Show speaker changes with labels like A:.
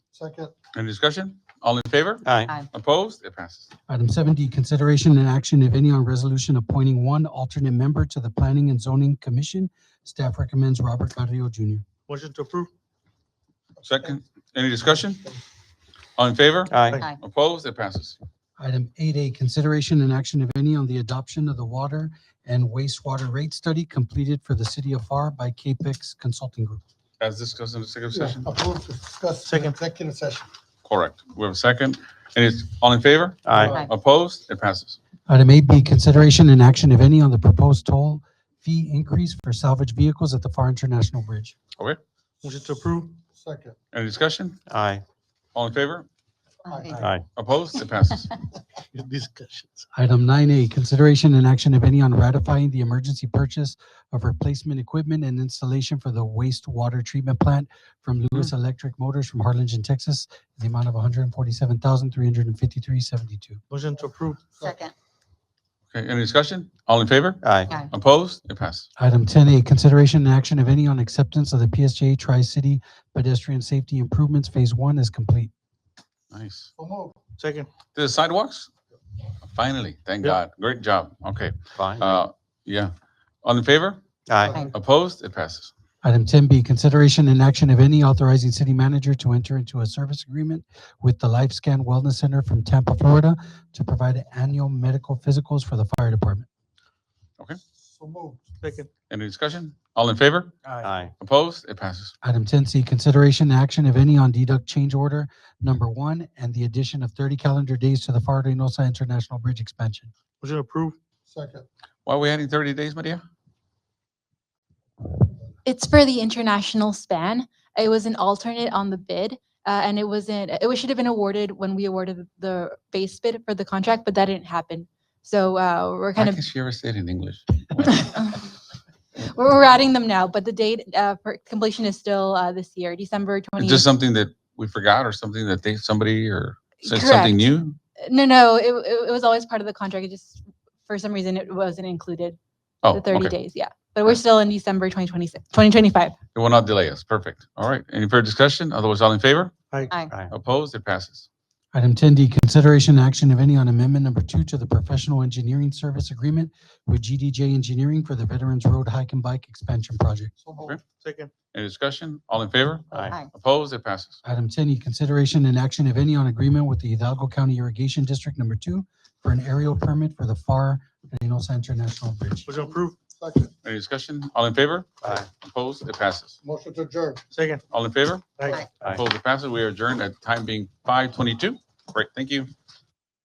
A: Second.
B: Any discussion? All in favor?
C: Aye.
B: Opposed? It passes.
D: Item seven D, consideration and action, if any, on resolution appointing one alternate member to the Planning and Zoning Commission. Staff recommends Robert Carrillo Jr.
A: Motion to approve.
B: Second, any discussion? All in favor?
C: Aye.
E: Aye.
B: Opposed? It passes.
D: Item eight A, consideration and action, if any, on the adoption of the water and wastewater rate study completed for the city of FAR by CAPEX Consulting Group.
B: As discussed in the executive
A: Yeah,
B: session?
A: Approve to discuss.
C: Second.
A: Executive session.
B: Correct. We have a second. And it's, all in favor?
C: Aye.
E: Aye.
B: Opposed? It passes.
D: Item eight B, consideration and action, if any, on the proposed toll fee increase for salvage vehicles at the FAR International Bridge.
A: Motion to approve. Second.
B: Any discussion?
C: Aye.
B: All in favor?
E: Aye.
C: Aye.
B: Opposed? It passes.
A: Discussions.
D: Item nine A, consideration and action, if any, on ratifying the emergency purchase of replacement equipment and installation for the wastewater treatment plant from Lewis Electric Motors from Harlingen, Texas, in the amount of one hundred and forty-seven thousand, three hundred and fifty-three seventy-two.
A: Motion to approve.
E: Second.
B: Okay, any discussion? All in favor?
C: Aye.
E: Aye.
B: Opposed? It passes.
D: Item ten A, consideration and action, if any, on acceptance of the PSJ Tri-City Pedestrian Safety Improvements Phase One is complete.
B: Nice.
A: So move.
F: Second.
B: The sidewalks? Finally, thank
F: Yeah.
B: God. Great job. Okay,
C: Fine.
B: uh, yeah. All in favor?
C: Aye.
B: Opposed? It passes.
D: Item ten B, consideration and action, if any, authorizing city manager to enter into a service agreement with the LifeScan Wellness Center from Tampa, Florida to provide annual medical physicals for the fire department.
A: So move.
F: Second.
B: Any discussion? All in favor?
C: Aye.
B: Opposed? It passes.
D: Item ten C, consideration and action, if any, on deduct change order number one and the addition of thirty calendar days to the FAR Reynosa International Bridge expansion.
F: Motion approved.
A: Second.
B: Why are we adding thirty days, Maria?
G: It's for the international span. It was an alternate on the bid, uh, and it wasn't, it was- should have been awarded when we awarded the base bid for the contract, but that didn't happen. So, uh, we're
B: Why
G: kind
B: can't she ever say it in English?
G: of, we're, we're adding them now, but the date, uh, for completion is still, uh, this year, December
B: Is
G: twenty.
B: this something that we forgot or something that they, somebody or said something
G: Correct.
B: new?
G: No, no, it, it, it was always part of the contract. It just, for some reason, it wasn't included,
B: Oh,
G: the thirty
B: okay.
G: days, yeah. But we're still in December twenty twenty-six, twenty twenty-five.
B: It will not delay us. Perfect. All right. Any further discussion? Otherwise, all in favor? Opposed? It passes.
D: Item ten D, consideration and action, if any, on amendment number two to the professional engineering service agreement with GDJ Engineering for the Veterans Road Hike and Bike Expansion Project.
A: So move.
F: Second.
B: Any discussion? All in favor?
C: Aye.
B: Opposed? It passes.
D: Item ten E, consideration and action, if any, on agreement with the Hidalgo County Irrigation District Number Two for an aerial permit for the FAR Reynosa International Bridge.
F: Motion approved.
A: Second.
B: Any discussion? All in favor?
C: Aye.
B: Opposed? It passes.
A: Motion to adjourn.
F: Second.
B: All in favor?
F: Aye.
C: Aye.
B: Opposed? It passes. We are adjourned at time being five twenty-two. Great. Thank you.